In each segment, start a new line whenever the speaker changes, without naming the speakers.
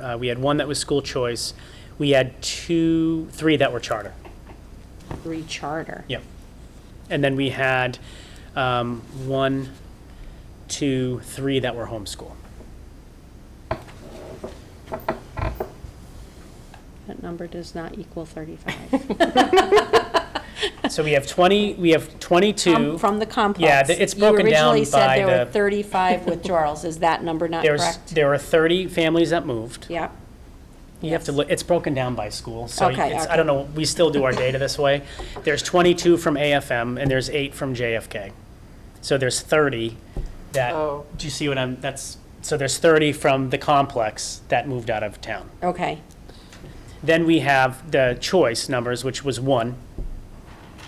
Uh, We had one that was school choice. We had two, three that were charter.
three charter.
Yep. And then we had um, one, two, three that were homeschool.
That number does not equal 35.
So we have 20, we have 22.
Um, From the complex.
Yeah, th- it's broken
You
down
originally said
by
there were
the-
35 withdrawals. Is that number not
There's,
correct?
there were 30 families that moved.
Yep.
You have to look, it's broken down by school, so
Okay,
it's, I
okay.
don't know, we still do our data this way. There's 22 from AFM and there's eight from JFK. So there's 30 that,
Oh.
do you see what I'm, that's, so there's 30 from the complex that moved out of town.
Okay.
Then we have the choice numbers, which was one,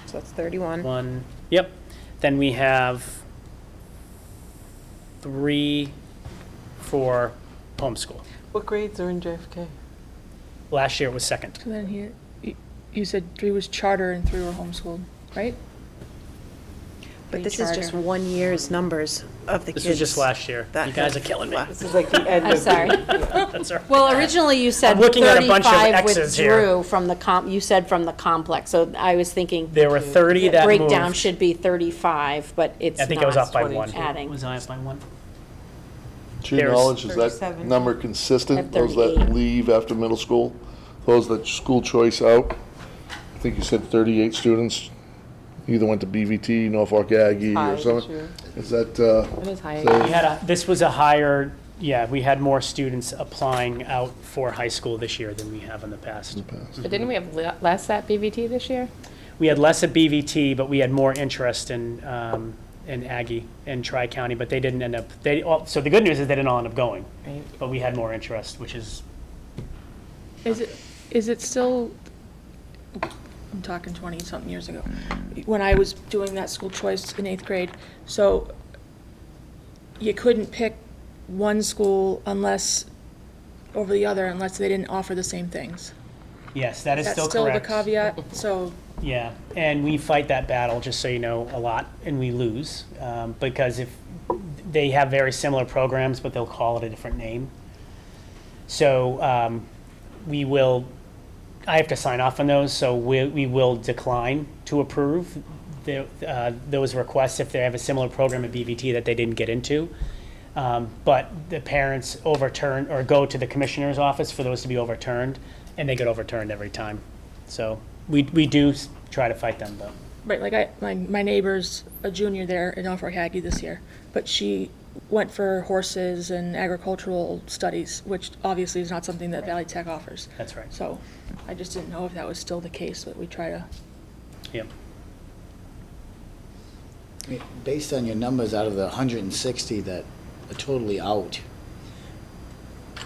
So that's 31.
one, yep. Then we have three for homeschool.
What grades are in JFK?
Last year it was second.
And then here, you- you said three was charter and three were homeschooled, right?
But this is just
Recharter.
one year's numbers of the kids.
This was just last year.
that
You guys are
have
killing me.
left.
This is like the end of.
I'm sorry.
That's all right.
Well, originally you said
I'm looking at a bunch of
35
Xs here.
withdrew from the comp, you said from the complex. So I was thinking
There were 30
the
that moved.
breakdown should be 35, but it's
I
not.
think I was off by one.
Adding.
Was I off by one?
To your
There's-
knowledge, is that
37.
number
At
consistent? Those that
38.
leave after middle school, those that school choice out? I think you said 38 students either went to BVT, Norfolk Aggie
High
or
this year.
something. Is that, uh,
It is high.
We had a, this was a higher, yeah, we had more students applying out for high school this year than we have in the past.
But didn't we have le- less at BVT this year?
We had less at BVT, but we had more interest in, um, in Aggie and Tri-County, but they didn't end up, they, all- so the good news is they didn't all end up going.
Right.
But we had more interest, which is,
Is it, is it still, I'm talking 20-something years ago, when I was doing that school choice in eighth grade, so you couldn't pick one school unless, over the other, unless they didn't offer the same things.
yes, that is
That's
still
still the
correct.
caveat, so
Yeah, and we fight that battle, just so you know, a lot, and we lose, um, because if, they have very similar programs, but they'll call it a different name. So um, we will, I have to sign off on those, so we, we will decline to approve the, uh, those requests if they have a similar program at BVT that they didn't get into. Um, But the parents overturn, or go to the commissioner's office for those to be overturned, and they get overturned every time. So we, we do s- try to fight them, though.
Right, like I, my, my neighbor's a junior there in Norfolk Aggie this year, but she went for horses and agricultural studies, which obviously is not something that Valley Tech offers.
That's right.
So I just didn't know if that was still the case, but we try to,
Yep.
I mean, Based on your numbers, out of the 160 that are totally out,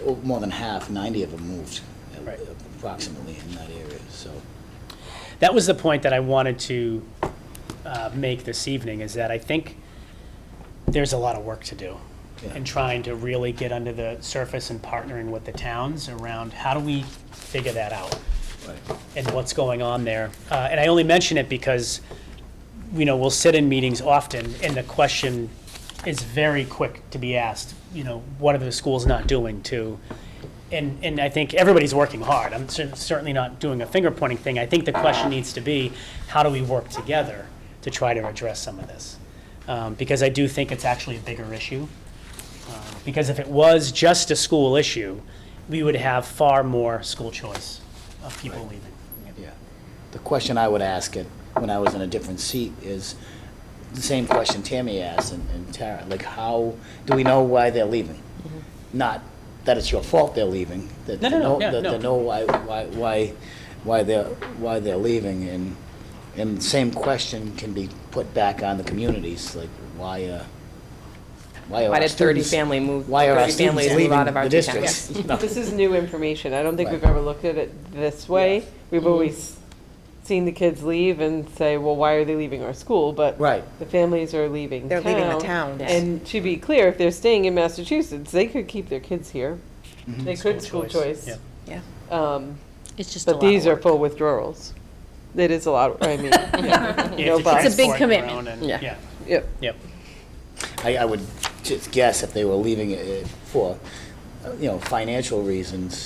oh, more than half, 90 of them moved, uh,
Right.
approximately in that area, so.
that was the point that I wanted to uh, make this evening, is that I think there's a lot of work to do
Yeah.
in trying to really get under the surface and partnering with the towns around how do we figure that out? and what's going on there. Uh, And I only mention it because, you know, we'll sit in meetings often, and the question is very quick to be asked, you know, what are the schools not doing to? And, and I think everybody's working hard. I'm cer- certainly not doing a finger pointing thing. I think the question needs to be, how do we work together to try to address some of this? Um, Because I do think it's actually a bigger issue. Um, Because if it was just a school issue, we would have far more school choice of people leaving.
Yeah. The question I would ask it, when I was in a different seat, is the same question Tammy asked and- and Tara, like, how, do we know why they're leaving?
Mm-hmm.
Not that it's your fault they're leaving, that
No,
they
no, no,
know,
yeah,
that
no.
they know why, why, why, why they're, why they're leaving, and, and the same question can be put back on the communities, like, why, uh, why are
Why
our
did 30
students-
family move,
why are our
30
students
families move
leaving
out of our
the
two
districts?
towns?
No.
This is new information. I don't think we've
Right.
ever looked at it this way.
Mm-hmm.
We've always seen the kids leave and say, well, why are they leaving our school? But
Right.
the families are leaving
They're leaving the towns.
And to be clear, if they're staying in Massachusetts, they could keep their kids here. They could school choice.
Yeah.
Um,
It's just a
But
lot of
these are
work.
full withdrawals. It is a lot, I mean,
You have
no
to try and
bus.
It's a big
support your
commitment.
own and-
Yeah.
Yeah,
Yep.
yep.
I, I would just guess if they were leaving it for uh, you know, financial reasons,